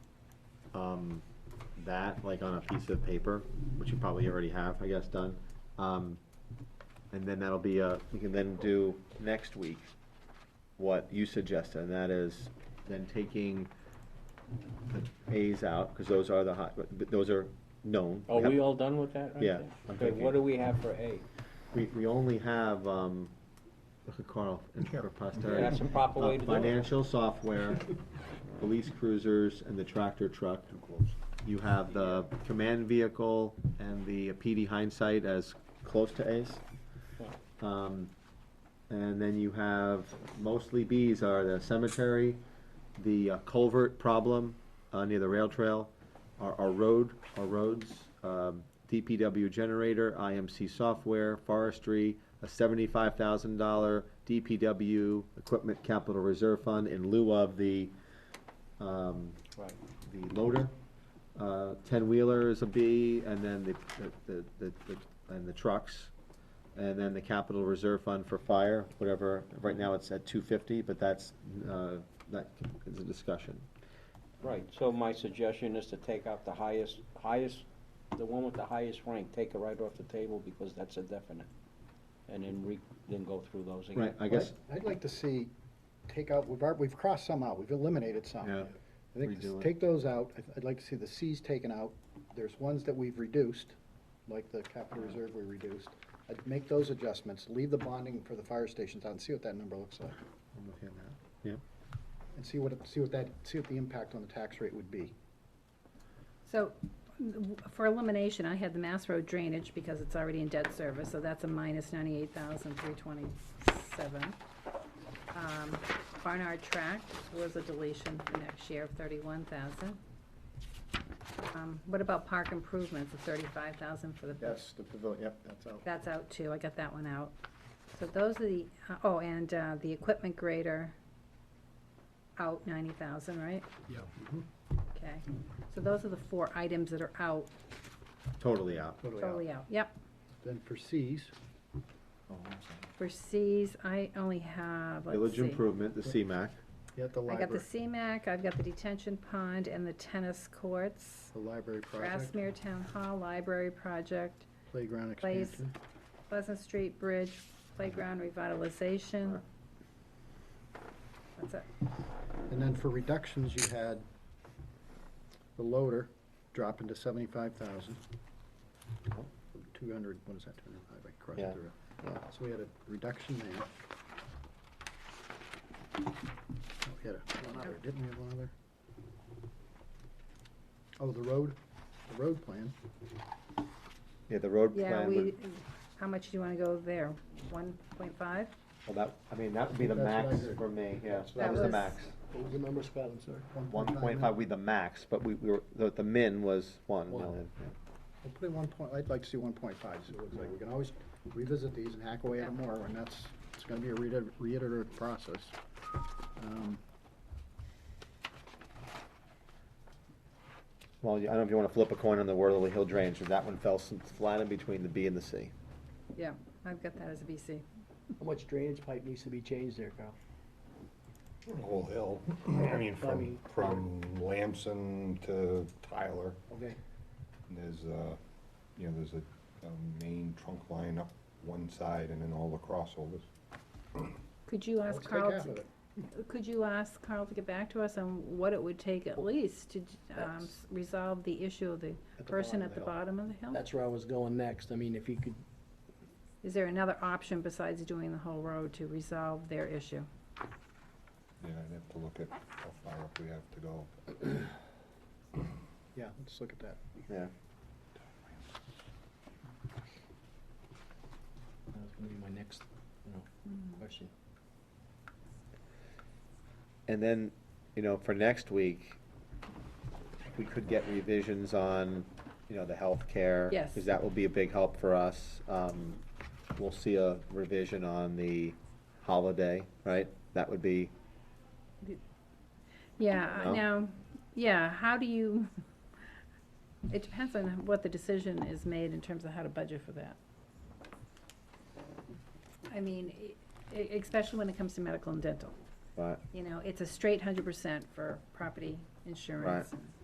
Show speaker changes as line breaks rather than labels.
um, that, like on a piece of paper, which you probably already have, I guess, done. Um, and then that'll be, uh, we can then do next week what you suggested, and that is then taking the A's out, because those are the hot, but- but those are known.
Are Oh, we
have-
all done with that right
Yeah,
there?
I'm
Okay,
thinking.
what do we have for A?
We, we only have, um, look at Carl, and for posterity.
That's the proper way to do it.
Uh, Financial software, police cruisers, and the tractor truck. You have the command vehicle and the PD hindsight as close to ace. Um, and then you have, mostly Bs are the cemetery, the uh, culvert problem, uh, near the rail trail, our, our road, our roads, um, DPW generator, IMC software, forestry, a seventy-five thousand dollar DPW equipment capital reserve fund in lieu of the, um,
Right.
the loader. Uh, ten-wheeler is a B, and then the, the, the, the, and the trucks. And then the capital reserve fund for fire, whatever, right now it's at two fifty, but that's, uh, that is a discussion.
Right, so my suggestion is to take out the highest, highest, the one with the highest rank, take it right off the table because that's a definite. And then re, then go through those again.
Right, I guess,
I'd- I'd like to see, take out, we've, al- we've crossed some out, we've eliminated some.
Yeah.
I think, s-
Redo it.
take those out, I'd- I'd like to see the Cs taken out, there's ones that we've reduced, like the capital reserve we reduced. I'd make those adjustments, leave the bonding for the fire stations out and see what that number looks like.
I'm looking at that, yeah.
And see what, it- see what that, see what the impact on the tax rate would be.
So w- for elimination, I had the Mass Road drainage because it's already in debt service, so that's a minus ninety-eight thousand three twenty-seven. Um, Barnard Tract was a deletion for next year of thirty-one thousand. Um, what about park improvements of thirty-five thousand for the
Yes, the pavilion, yep, that's out.
that's out too, I got that one out. So those are the, oh, and uh, the equipment grader, out ninety thousand, right?
Yeah.
Okay, so those are the four items that are out,
Totally out.
totally out, yep.
Then for Cs, Oh.
For Cs, I only have, let's
Village
see.
improvement, the CMAC,
you have the
I got the
library,
CMAC, I've got the detention pond and the tennis courts,
the library project,
Grassmere Town Hall, library project,
playground
Plays-
expansion.
Pleasant Street Bridge, playground revitalization.
Alright.
That's it.
And then for reductions, you had the loader drop into seventy-five thousand. Two hundred, what is that, two hundred and five, I crossed
Yeah,
through. So we had a reduction there. Oh, We had a, one other, didn't we have one other? Oh, the road, the road plan,
yeah, the road
Yeah,
plan,
we,
would-
how much do you wanna go there? One point five?
well, that, I mean, that would be the
That's what I
max
heard.
for me, yeah,
what
I
that was the
heard.
max.
What was the number, Scott, I'm sorry?
One
1.5
point
million.
five would be the max, but we, we were, the, the min was one
One.
million. yeah.
We'll put in one point, I'd like to see one point five, see what it looks like. We can always revisit these and hack away at them more, and that's, it's gonna be a reiter- reiterative process. Um,
Well, you- I don't know if you wanna flip a coin on the Worthy Hill drainage, 'cause that one fell s- flat in between the B and the C.
Yeah, I've got that as a BC.
How much drainage pipe needs to be changed there, Carl?
Whole hill, I mean,
I
from,
mean-
from Lamson to Tyler,
Okay.
there's a, you know, there's a, a main trunk line up one side and then all the crossovers.
Could you
Let's
ask
take
Carl,
half
to-
of it.
could you ask Carl to get back to us on what it would take at least to, um, s- resolve the issue of the
At the
person
bottom of
at
the
the
hill.
bottom of the hill?
That's where I was going next. I mean, if you could,
Is there another option besides doing the whole road to resolve their issue?
Yeah, I'd have to look at how far up we have to go.
Yeah, let's look at that.
Yeah,
that was gonna be my next, you know, question.
and then, you know, for next week, we could get revisions on, you know, the healthcare.
Yes.
Cause that will be a big help for us. Um, we'll see a revision on the holiday, right? That would be,
Yeah,
No.
now, yeah, how do you, it depends on what the decision is made in terms of how to budget for that. I mean, e- e- especially when it comes to medical and dental,
but
you know, it's a straight hundred percent for property insurance. and-